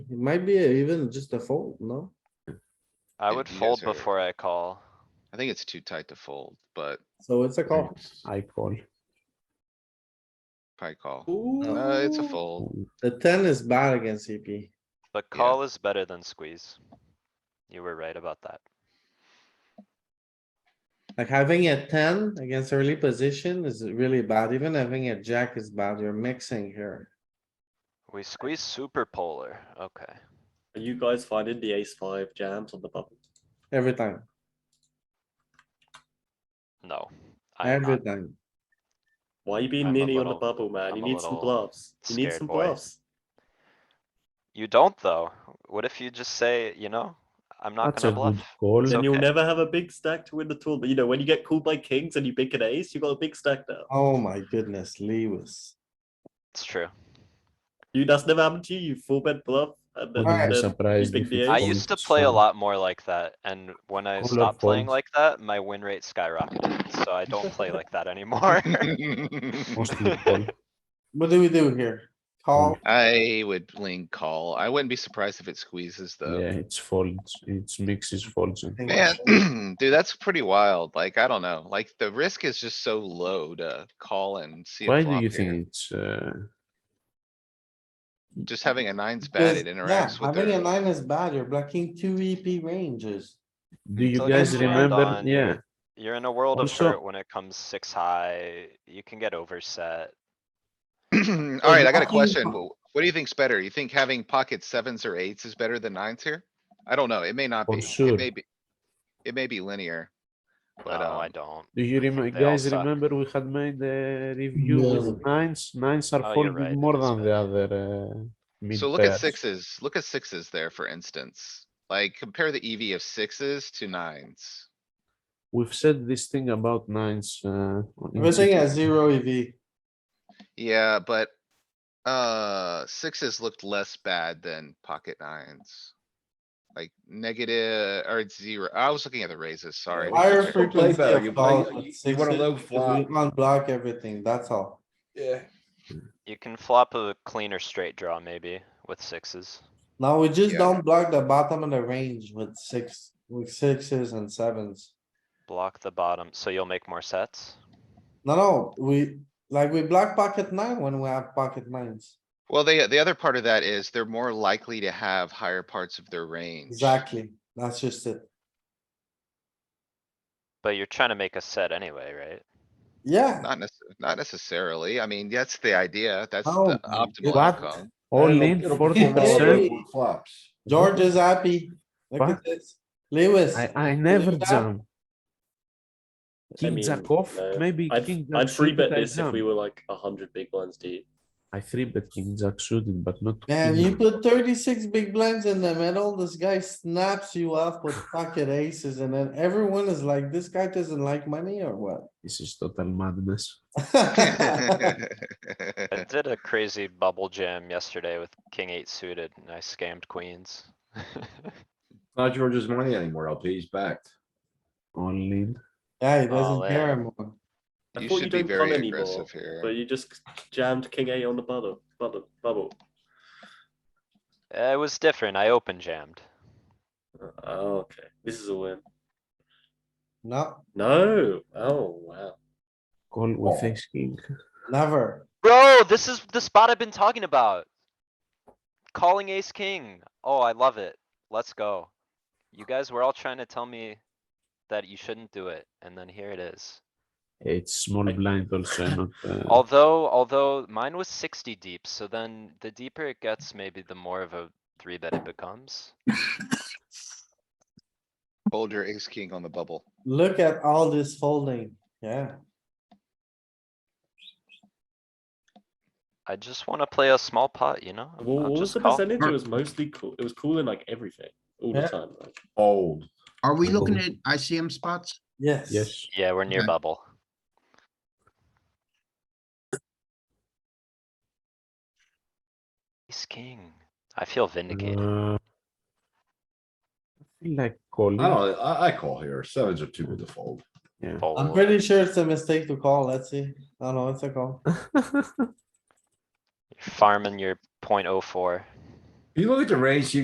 It might be even just a fold, no? I Yeah, would you guys fold are- before I call. I think it's too tight to fold, but So it's a call. I call. probably call. Uh, it's a Ooh, fold. The ten is bad against CP. But Yeah. call is better than squeeze. You were right about that. Like having a ten against early position is really bad. Even having a jack is bad. You're mixing here. We squeeze super polar, okay. Are you guys finding the ace five jams on the bubble? Every time, No. I am every not. time. Why are you being I'm a ninny on the little- bubble, man? I'm You a need some little bluffs. You need scared, some boy. bluffs. You don't though. What if you just say, you know, I'm not That's gonna a good bluff? call. It's And you'll okay. never have a big stack to win the tournament. You know, when you get called by kings and you pick an ace, you got a big stack now. Oh my goodness, Lewis. It's true. You that's never happened to you. You full bet bluff and then, Wouldn't be then surprised pick if the it ace. I Fold, used to play a folds. lot more like that, and when I Call or stopped playing fold? like that, my win rate skyrocketed, so I don't play like that anymore. Mostly call. What do we do here? Call, I would lean call. I wouldn't be surprised if it squeezes Yeah, though. it's folds. It's mixes folds. and- Yeah. Man, dude, that's pretty wild. Like, I don't know, like the risk is just so low to call and see. a Why do flop you here. think it's? Uh, Just having a nines bad, because, it yeah, interacts with having a their, nine is bad. You're blocking two EP ranges. do you So guys just land remember? on- Yeah, You're in a world of Also- hurt when it comes six high. You can get overset. alright, I got a blocking- question. Wh- What do you think's better? You think having pocket sevens or eights is better than nines here? I don't know. It may not Oh, be. It sure. may be. It may be linear. No, But, oh, I um, don't. do you think remember? they all Guys, suck. remember we had made the review with nines. Nines are Oh, you're folding right, it more is than the other. Uh, mid So look at pairs. sixes, look at sixes there, for instance. Like compare the EV of sixes to nines. We've said this thing about nines. Uh, in Everything GT. has zero E EV. Yeah, but, uh, sixes looked less bad than pocket nines. Like negative, or it's zero. I was looking at the raises, sorry. Higher play frequency better, of you calls play- with you- you want a sixes, low because flop. we Unblock everything, that's all. Yeah. You can flop a cleaner straight draw maybe with sixes. Now we just Yeah. don't block the bottom of the range with six, with sixes and sevens. Block the bottom, so you'll make more sets. No, no, we, like, we block pocket nine when we have pocket nines. Well, the, the other part of that is they're more likely to have higher parts of their range. Exactly, that's just it. But you're trying to make a set anyway, right? Yeah, Not necess- not necessarily. I mean, that's the idea. That's Oh the my optimal What? outcome. All It'll- in It'll forty pop all Hey. percent. over Flops. George is happy. Look at What? this. Lewis, I, I never that- jam. King mean, jack off, no. maybe I'd, king jack I'd free bet suited, I this if jam. we were like a hundred big blinds deep. I three bet king jack suited, but not. man, king you jack. put thirty-six big blinds in the middle, this guy snaps you off with pocket aces, and then everyone is like, this guy doesn't like money or what? This is total madness. I did a crazy bubble jam yesterday with king eight suited and I scammed queens. Not George's money anymore. LP, he's backed. All in. Oh, Yeah, he All doesn't care in. anymore. I You thought you should be don't come very anymore, aggressive here. But you just jammed king eight on the bubble, bubble, bubble. Eh, It was different. I open jammed. Oh, okay. This is a win. No, No. Oh, wow. Call with Oh. ace king. never. Bro, this is the spot I've been talking about. Calling ace king. Oh, I love it. Let's go. You guys were all trying to tell me that you shouldn't do it, and then here it is. It's small I- blind also, not. uh, Although, although mine was sixty deep, so then the deeper it gets, maybe the more of a three bet it becomes. Hold your ace king on the bubble. Look at all this folding, yeah. I just wanna play a small pot, you know? What, I'll what was just the call. percentage? It was mostly cool. It was cool in like everything all Yeah. the time. Like, Old. Are we looking Cool. at ICM spots? Yes. Yes, Yeah, we're near Okay. bubble. Ace king. I feel vindicated. uh. I feel like calling. I don't, Oh, I, I call here. Sevens are too good to fold. I'm Fold. pretty sure it's a mistake to call, let's see. No, no, it's a call. Farming your point oh four. You look at the range, you